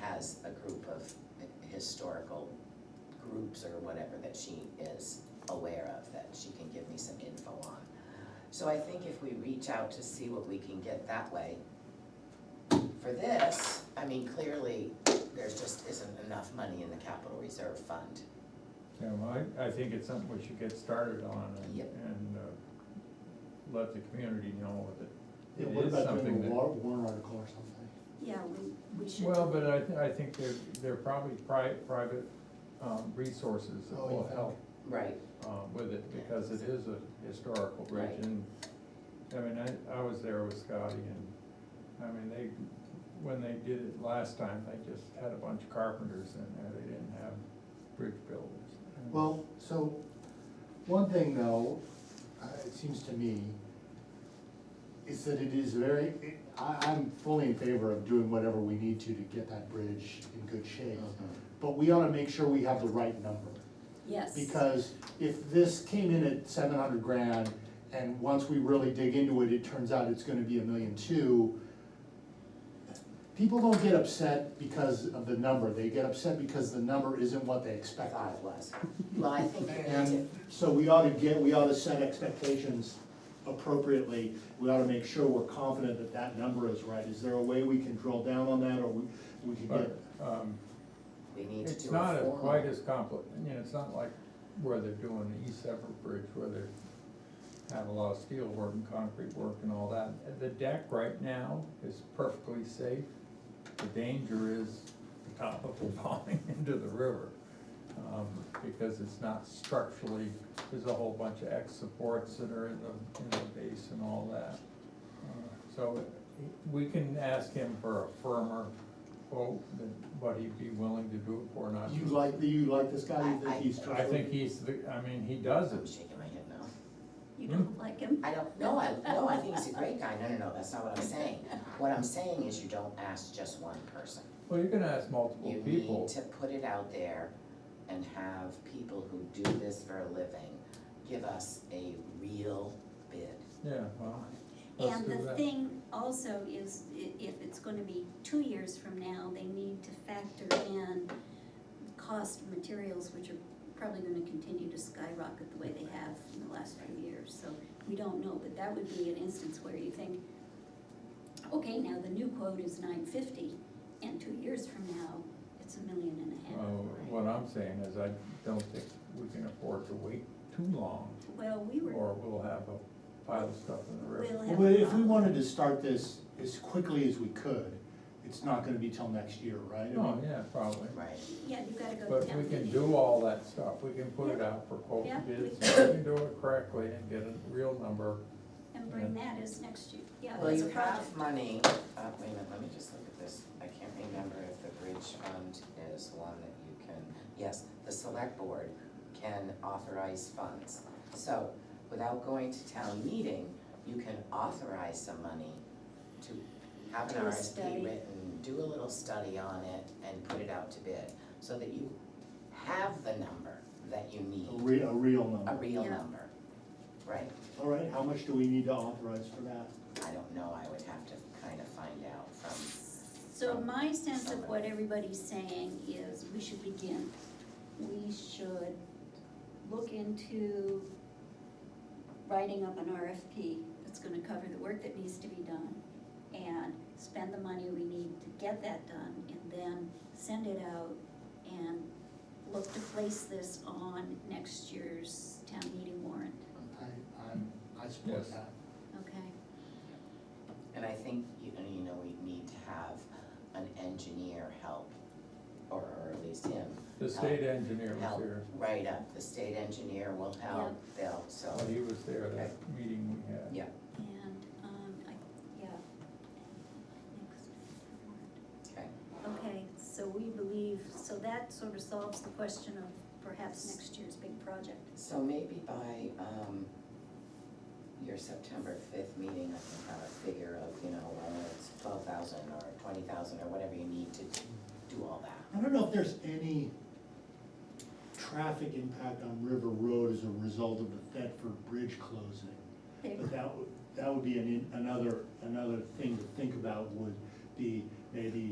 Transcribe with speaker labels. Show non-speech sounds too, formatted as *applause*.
Speaker 1: has a group of historical groups or whatever that she is aware of, that she can give me some info on. So I think if we reach out to see what we can get that way, for this, I mean, clearly, there just isn't enough money in the capital reserve fund.
Speaker 2: Yeah, well, I, I think it's something we should get started on and,
Speaker 1: Yep.
Speaker 2: and uh, let the community know that.
Speaker 3: Yeah,
Speaker 2: it
Speaker 3: what
Speaker 2: is
Speaker 3: about
Speaker 2: something
Speaker 3: doing a
Speaker 2: that-
Speaker 3: war, warrant article or something?
Speaker 4: Yeah, we, we should.
Speaker 2: Well, but I, th- I think there, there are probably pri- private, um, resources that
Speaker 3: Oh, you
Speaker 2: will
Speaker 3: think?
Speaker 2: help,
Speaker 1: Right.
Speaker 2: uh, with it, because it is a historical bridge
Speaker 1: Right.
Speaker 2: and, I mean, I, I was there with Scotty and, I mean, they, when they did it last time, they just had a bunch of carpenters in there, they didn't have bridge builders. And-
Speaker 3: Well, so, one thing though, uh, it seems to me, is that it is very, it- I, I'm fully in favor of doing whatever we need to to get that bridge in good shape.
Speaker 1: Mm-hmm.
Speaker 3: But we ought to make sure we have the right number.
Speaker 4: Yes.
Speaker 3: Because if this came in at seven hundred grand, and once we really dig into it, it turns out it's gonna be a million two, people don't get upset because of the number, they get upset because the number isn't what they
Speaker 1: I
Speaker 3: expected.
Speaker 1: thought it was. Well, I think you need to,
Speaker 3: And so we ought to get, we ought to set expectations appropriately, we ought to make sure we're confident that that number is right. Is there a way we can drill down on that, or we, we can get?
Speaker 2: But, um,
Speaker 1: we need to do a formal.
Speaker 2: It's not as quite as compli, you know, it's not like where they're doing the East Separate Bridge, where they have a lot of steel work and concrete work and all that. The deck right now is perfectly safe. The danger is the *laughs* top of it falling into the river. um, Because it's not structurally, there's a whole bunch of X supports that are in the, in the base and all that. Uh, So we can ask him for a firmer quote than what he'd be willing to do it for, not.
Speaker 3: You like, you like this guy, you
Speaker 1: I- I-
Speaker 3: think he's
Speaker 2: I
Speaker 3: trustworthy?
Speaker 2: think he's, the. I mean, he does
Speaker 1: I'm
Speaker 2: it.
Speaker 1: shaking my head now.
Speaker 4: You don't like him?
Speaker 1: I don't, no, I, no, I think he's a great guy, no, no, no, that's not what I'm saying. What I'm saying is you don't ask just one person.
Speaker 2: Well, you're gonna ask multiple
Speaker 1: You need
Speaker 2: people.
Speaker 1: to put it out there and have people who do this for a living give us a real bid
Speaker 2: Yeah, well,
Speaker 1: on it.
Speaker 2: let's
Speaker 4: And
Speaker 2: do
Speaker 4: the
Speaker 2: that.
Speaker 4: thing also is, i- if it's gonna be two years from now, they need to factor in cost of materials, which are probably gonna continue to skyrocket the way they have in the last few years, so we don't know, but that would be an instance where you think, okay, now the new quote is nine fifty, and two years from now, it's a million and a half.
Speaker 2: Well, Uh, what I'm saying is I don't think we can afford to wait too long
Speaker 4: Well, we were,
Speaker 2: or we'll have a pile of stuff in the river.
Speaker 4: we'll have.
Speaker 3: Well,
Speaker 4: a
Speaker 3: if we
Speaker 4: problem.
Speaker 3: wanted to start this as quickly as we could, it's not gonna be till next year, right? I
Speaker 2: Oh,
Speaker 3: mean,
Speaker 2: yeah, probably.
Speaker 1: Right,
Speaker 4: Yeah, you gotta go
Speaker 2: But
Speaker 4: to town
Speaker 2: we can
Speaker 4: meeting.
Speaker 2: do all that stuff. We can put it out for quote
Speaker 4: Yeah.
Speaker 2: bids. We can do it correctly and get a real number.
Speaker 4: And bring that as next year, yeah,
Speaker 1: well,
Speaker 4: as a
Speaker 1: you
Speaker 4: project.
Speaker 1: have money, uh, wait a minute, let me just look at this, I can't remember if the bridge fund is one that you can, yes, the select board can authorize funds. So, without going to town meeting, you can authorize some money to have an
Speaker 4: Do a
Speaker 1: RFP
Speaker 4: study.
Speaker 1: written, do a little study on it, and put it out to bid, so that you have the number that you
Speaker 3: A
Speaker 1: need,
Speaker 3: re, a real
Speaker 1: a
Speaker 3: number.
Speaker 1: real
Speaker 4: Yeah.
Speaker 1: number, right?
Speaker 3: All right, how much do we need to authorize for that?
Speaker 1: I don't know, I would have to kind of find out from
Speaker 4: So my sense of what everybody's saying is we should begin. We should look into writing up an RFP that's gonna cover the work that needs to be done and spend the money we need to get that done and then send it out and look to place this on next year's town meeting warrant,
Speaker 3: I, I'm, I support
Speaker 2: Yes.
Speaker 3: that.
Speaker 4: okay?
Speaker 1: And I think, you know, you know, we need to have an engineer help, or, or at least him,
Speaker 2: The state engineer was
Speaker 1: help
Speaker 2: here.
Speaker 1: write up, the state engineer will help, they'll, so,
Speaker 2: Oh, he was there, that meeting we had.
Speaker 1: yeah,
Speaker 4: And, um, I, yeah. Next.
Speaker 1: okay.
Speaker 4: Okay, so we believe, so that sort of solves the question of perhaps next year's big project.
Speaker 1: So maybe by, um, your September fifth meeting, I can have a figure of, you know, whether it's twelve thousand or twenty thousand or whatever you need to do all that.
Speaker 3: I don't know if there's any traffic impact on River Road as a result of the Thetford Bridge closing.
Speaker 4: There-
Speaker 3: But that would, that would be an, in- another, another thing to think about would be maybe